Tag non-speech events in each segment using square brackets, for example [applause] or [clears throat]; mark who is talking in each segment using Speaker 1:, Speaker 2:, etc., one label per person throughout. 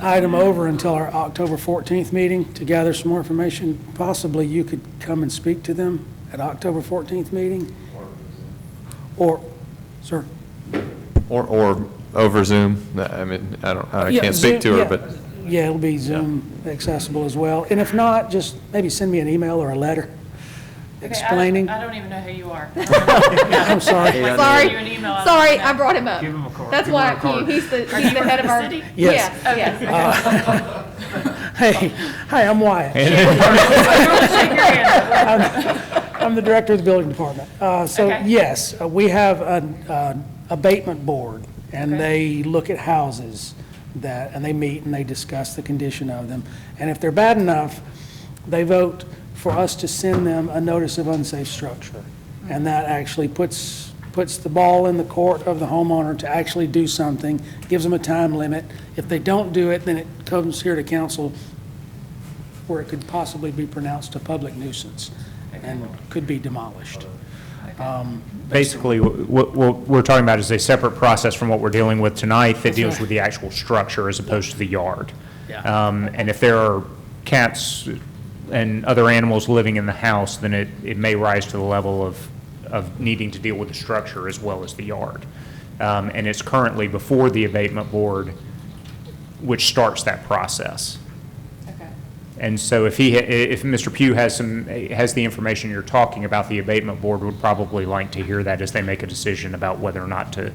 Speaker 1: item over until our October 14th meeting to gather some more information. Possibly you could come and speak to them at October 14th meeting? Or, sir?
Speaker 2: Or, or over Zoom, I mean, I don't, I can't speak to her, but,
Speaker 1: Yeah, it'll be Zoom accessible as well. And if not, just maybe send me an email or a letter
Speaker 3: Okay, I don't-
Speaker 1: explaining.
Speaker 3: I don't even know who
Speaker 2: [laughs]
Speaker 3: you are.
Speaker 1: [laughs] I'm sorry.
Speaker 3: Sorry.
Speaker 4: Sorry,
Speaker 3: You an email.
Speaker 5: [laughs]
Speaker 4: sorry, I brought him up.
Speaker 6: Give him a card.
Speaker 4: That's
Speaker 6: Give him
Speaker 4: why
Speaker 6: a
Speaker 4: I-
Speaker 6: card.
Speaker 4: he- he's the, he's the head of our.
Speaker 3: City?
Speaker 1: Yes.
Speaker 4: Yeah, yes.
Speaker 1: Hey, hi, I'm Wyatt.
Speaker 3: Shake your hand.
Speaker 1: I'm the director of the building department. Uh, So,
Speaker 3: Okay.
Speaker 1: yes, uh, we have an an abatement board, and they look at houses that, and they meet and they discuss the condition of them. And if they're bad enough, they vote for us to send them a notice of unsafe structure. And that actually puts, puts the ball in the court of the homeowner to actually do something, gives them a time limit. If they don't do it, then it comes here to council where it could possibly be pronounced a public nuisance and could be demolished.
Speaker 6: Basically, wh- what, what we're talking about is a separate process from what we're dealing with tonight that deals
Speaker 1: right.
Speaker 6: with the actual structure as opposed to the yard.
Speaker 1: Yeah.
Speaker 6: Um, and if there are cats and other animals living in the house, then it, it may rise to the level of, of needing to deal with the structure as well as the yard. Um, and it's currently before the abatement board, which starts that process.
Speaker 3: Okay.
Speaker 6: And so if he, ha- if Mr. Pugh has some, has the information you're talking about, the abatement board would probably like to hear that as they make a decision about whether or not to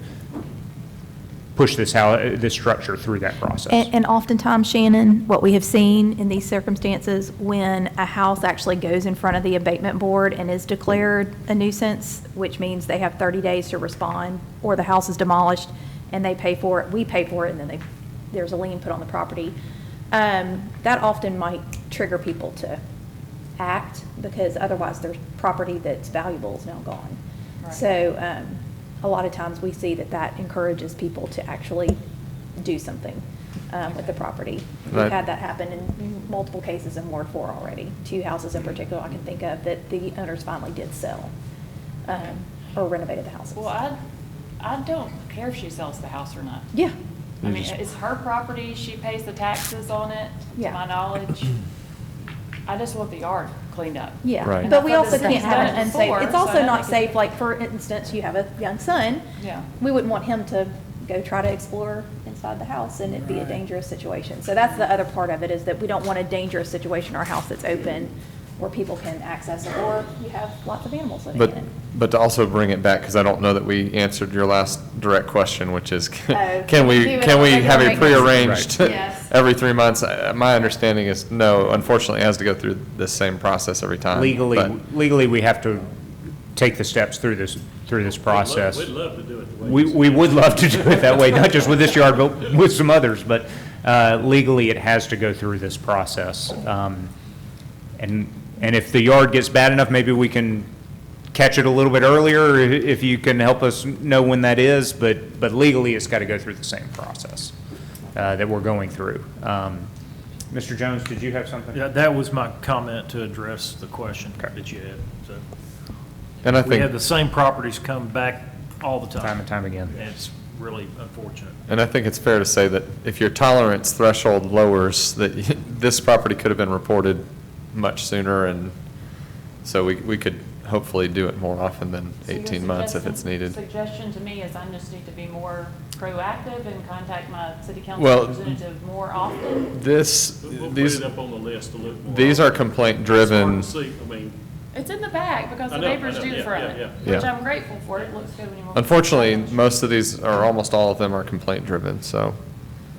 Speaker 6: push this, how, this structure through that process.
Speaker 5: And, and oftentimes, Shannon, what we have seen in these circumstances, when a house actually goes in front of the abatement board and is declared a nuisance, which means they have thirty days to respond, or the house is demolished, and they pay for it, we pay for it, and then they, there's a lien put on the property. Um, that often might trigger people to act, because otherwise their property that's valuable is now gone.
Speaker 3: Right.
Speaker 5: So, um, a lot of times we see that that encourages people to actually do something um, with the property. We've
Speaker 2: Right.
Speaker 5: had that happen in multiple cases in Ward Four already. Two houses in particular I can think of that the owners finally did sell um, or renovated the houses.
Speaker 3: Well, I, I don't care if she sells the house or not.
Speaker 5: Yeah,
Speaker 3: I mean, it's her property, she pays the taxes on it, to
Speaker 5: Yeah.
Speaker 3: my
Speaker 2: [clears throat]
Speaker 3: knowledge. I just want the yard cleaned up.
Speaker 5: yeah.
Speaker 2: Right.
Speaker 5: But we
Speaker 3: And I thought
Speaker 5: also
Speaker 3: this
Speaker 5: can't have
Speaker 3: thing's done
Speaker 5: an
Speaker 3: it
Speaker 5: unsafe,
Speaker 3: before,
Speaker 5: it's
Speaker 3: so I
Speaker 5: also
Speaker 3: don't
Speaker 5: not
Speaker 3: think it-
Speaker 5: safe, like, for instance, you have a young son.
Speaker 3: Yeah.
Speaker 5: We wouldn't want him to go try to explore inside the house and it'd be a dangerous situation. So that's the other part of it, is that we don't want a dangerous situation, in our house that's open where people can access it, or you have lots of animals living in
Speaker 2: [laughs] but,
Speaker 5: it.
Speaker 2: but to also bring it back, because I don't know that we answered your last direct question, which is,
Speaker 5: Oh,
Speaker 2: [laughs] can
Speaker 5: do
Speaker 2: we,
Speaker 5: it
Speaker 2: can
Speaker 5: on
Speaker 2: we
Speaker 5: regular
Speaker 2: have a
Speaker 5: maintenance.
Speaker 2: prearranged [laughs]
Speaker 3: Right. Yes.
Speaker 2: every three months? I- My understanding is, no, unfortunately, it has to go through the same process every time.
Speaker 6: Legally,
Speaker 2: but-
Speaker 6: legally, we have to take the steps through this, through this process.
Speaker 7: We'd love to do it the way
Speaker 6: We, we would love to do it that way, not just with this yard, but with some others, but uh, legally, it has to go through this process. Um, And, and if the yard gets bad enough, maybe we can catch it a little bit earlier, i- if you can help us know when that is, but, but legally, it's got to go through the same process uh, that we're going through. Um, Mr. Jones, did you have something?
Speaker 7: Yeah, that was my comment to address the question that you had, so.
Speaker 2: And I
Speaker 7: We have
Speaker 2: think,
Speaker 7: the same properties come back all the time.
Speaker 6: Time and time again.
Speaker 7: And it's really unfortunate.
Speaker 2: and I think it's fair to say that if your tolerance threshold lowers, that [laughs] this property could have been reported much sooner, and so we, we could hopefully do it more often than
Speaker 3: So your
Speaker 2: 18 months if it's
Speaker 3: suggestion-
Speaker 2: needed.
Speaker 3: Suggestion to me is I just need to be more proactive and contact my city council
Speaker 2: Well-
Speaker 3: representative more often.
Speaker 2: This,
Speaker 7: We'll put
Speaker 2: these,
Speaker 7: it up on the list to look more.
Speaker 2: these are complaint-driven.
Speaker 7: It's hard to see, I mean,
Speaker 3: It's in the bag because the
Speaker 7: I know, I
Speaker 3: neighbors
Speaker 7: know,
Speaker 3: do
Speaker 7: yeah,
Speaker 3: for
Speaker 7: yeah,
Speaker 3: it,
Speaker 2: yeah.
Speaker 3: which
Speaker 2: Yeah.
Speaker 3: I'm grateful for. It looks good when you walk. in.
Speaker 2: Unfortunately, most of these, or almost all of them are complaint-driven, so,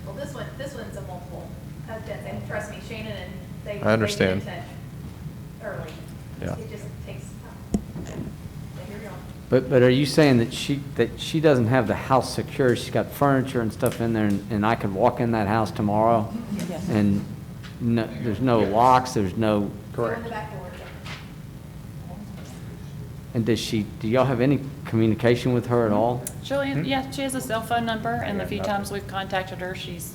Speaker 4: Well, this one, this one's a multiple, and trust me, Shannon and they.
Speaker 2: get in understand. touch
Speaker 4: Early.
Speaker 2: Yeah. It
Speaker 4: just takes
Speaker 8: But, but are you saying that she, that she doesn't have the house secure, she's got furniture and stuff in there, and and I could walk in that house tomorrow? And no, there's no locks, there's no,
Speaker 6: Correct.
Speaker 8: and does she, do y'all have any communication with her at all?
Speaker 3: She'll,
Speaker 2: Hmm?
Speaker 3: an- yeah, she has a cell phone number, and the few
Speaker 6: Yeah.
Speaker 3: times we've contacted her, she's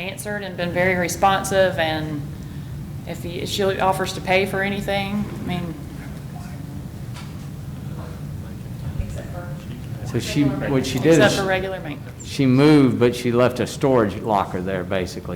Speaker 3: answered and been very responsive, and if he- she offers to pay for anything, I mean,
Speaker 8: So she, what she did
Speaker 3: except for
Speaker 8: is,
Speaker 3: regular maintenance.
Speaker 8: she moved, but she left a storage locker there, basically.